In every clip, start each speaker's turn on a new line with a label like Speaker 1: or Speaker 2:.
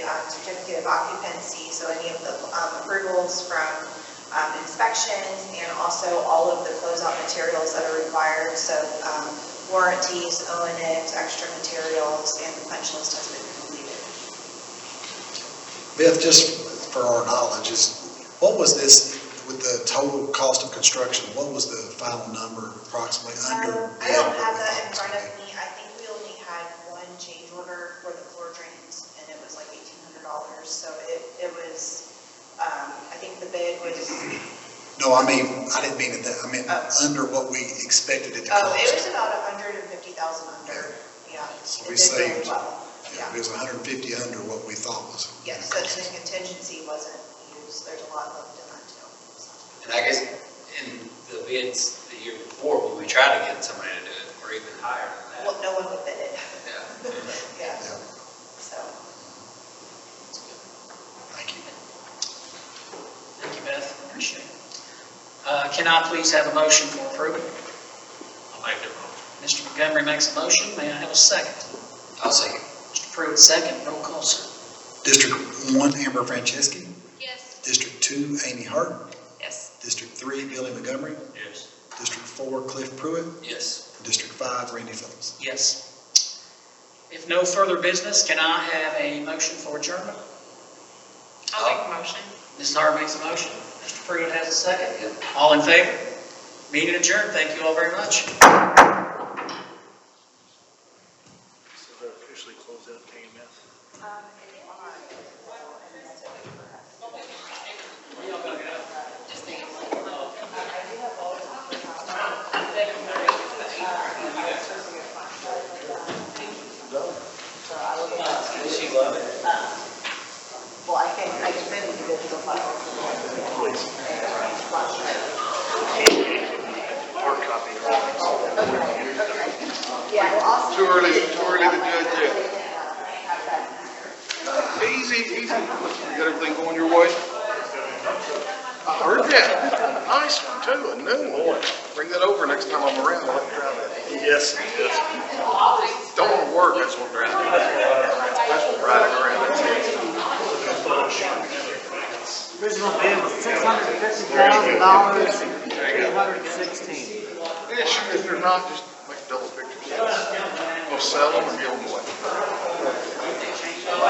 Speaker 1: um, certificate of occupancy, so any of the um, approvals from um, inspections, and also all of the closeout materials that are required, so um, warranties, O and M's, extra materials, and the punch list has been completed.
Speaker 2: Beth, just for our knowledge, is, what was this, with the total cost of construction, what was the final number approximately under?
Speaker 1: Um, I don't have that in front of me, I think we only had one change order for the floor drains, and it was like eighteen hundred dollars, so it, it was, um, I think the bid was,
Speaker 2: No, I mean, I didn't mean it that, I mean,
Speaker 1: Oh.
Speaker 2: under what we expected it to cost.
Speaker 1: oh, it was about a hundred and fifty thousand under, yeah.
Speaker 2: So
Speaker 1: It
Speaker 2: we
Speaker 1: did really
Speaker 2: saved-
Speaker 1: well,
Speaker 2: Yeah, It was hundred and fifty under what we thought was. gonna
Speaker 1: Yes, so
Speaker 2: cost.
Speaker 1: the contingency wasn't used, there's a lot left in that too.
Speaker 3: And I guess in the bids the year before, when we tried to get somebody to do it, or even higher than
Speaker 1: Well,
Speaker 3: that.
Speaker 1: no one would bid it,
Speaker 3: Yeah.
Speaker 1: yeah,
Speaker 2: Yeah,
Speaker 1: so.
Speaker 2: thank you.
Speaker 4: Thank you, Beth, appreciate it. Uh, Can I please have a motion for approval?
Speaker 3: I'll make the motion.
Speaker 4: Mr. Montgomery makes a motion, may I have a second?
Speaker 3: I'll second.
Speaker 4: Mr. Pruitt, second, roll call, sir.
Speaker 2: District one, Amber Franceschi.
Speaker 5: Yes.
Speaker 2: District two, Amy Hart.
Speaker 5: Yes.
Speaker 2: District three, Billy Montgomery.
Speaker 3: Yes.
Speaker 2: District four, Cliff Pruitt.
Speaker 3: Yes.
Speaker 2: District five, Randy Phillips.
Speaker 4: Yes. If no further business, can I have a motion for adjournment?
Speaker 5: I'll make a motion.
Speaker 4: Ms. Hart makes a motion, Mr. Pruitt has a second. All in favor? Meeting adjourned, thank you all very much.
Speaker 6: So they're officially closed out KMS?
Speaker 3: She love it.
Speaker 1: Well, I can, I can bid it to the
Speaker 6: Hard copy.
Speaker 1: Yeah, well, also.
Speaker 6: Oh, Too early, too early to judge yet. Easy, easy. You got everything going your way? I heard that. Nice one too, a new one. Bring that over next time I'm around. I'll try that. Yes, yes. Don't want to work. That's one driving. That's one riding around. That's
Speaker 7: Original bid was six hundred and fifty thousand dollars, eight hundred and sixteen.
Speaker 6: Yeah, sure, if they're not, just make double pictures. We'll sell them or give them away. All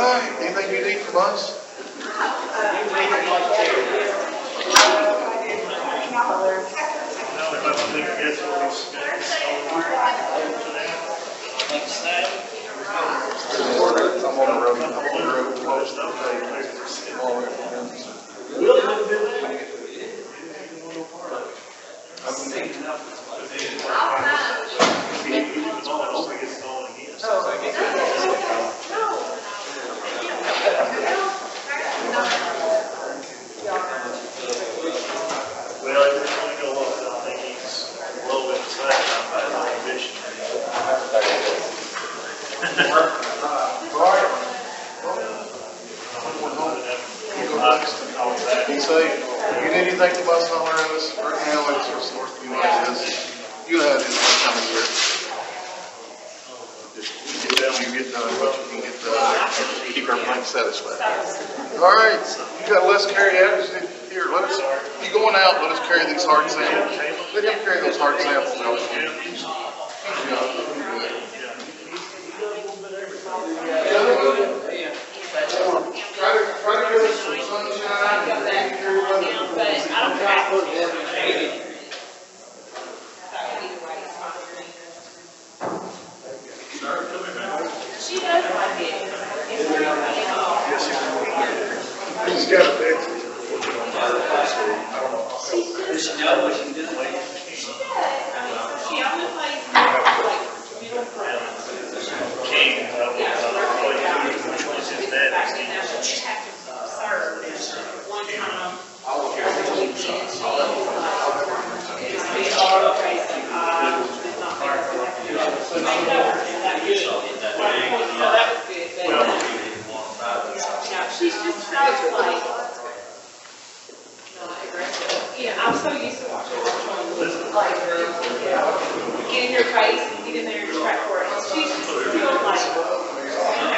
Speaker 6: right, anything you need from us? I'm on the road, I'm on the road, close up, I'm all right.
Speaker 8: Well, if we're gonna go up, I think he's low inside, I'm by the ambition.
Speaker 6: You say, you need anything from us on our end, this, right now, it's your source, you know, this, you have this this time of year. You get down, you get done, what you can get done, keep everything satisfied. All right, you got less carry average, than- here, let us, you going out, let us carry these hard samples. Let him carry those hard samples out. Try to, try to get us some sunshine, and carry weather.
Speaker 5: She does like it.
Speaker 6: He's got a big.
Speaker 5: She almost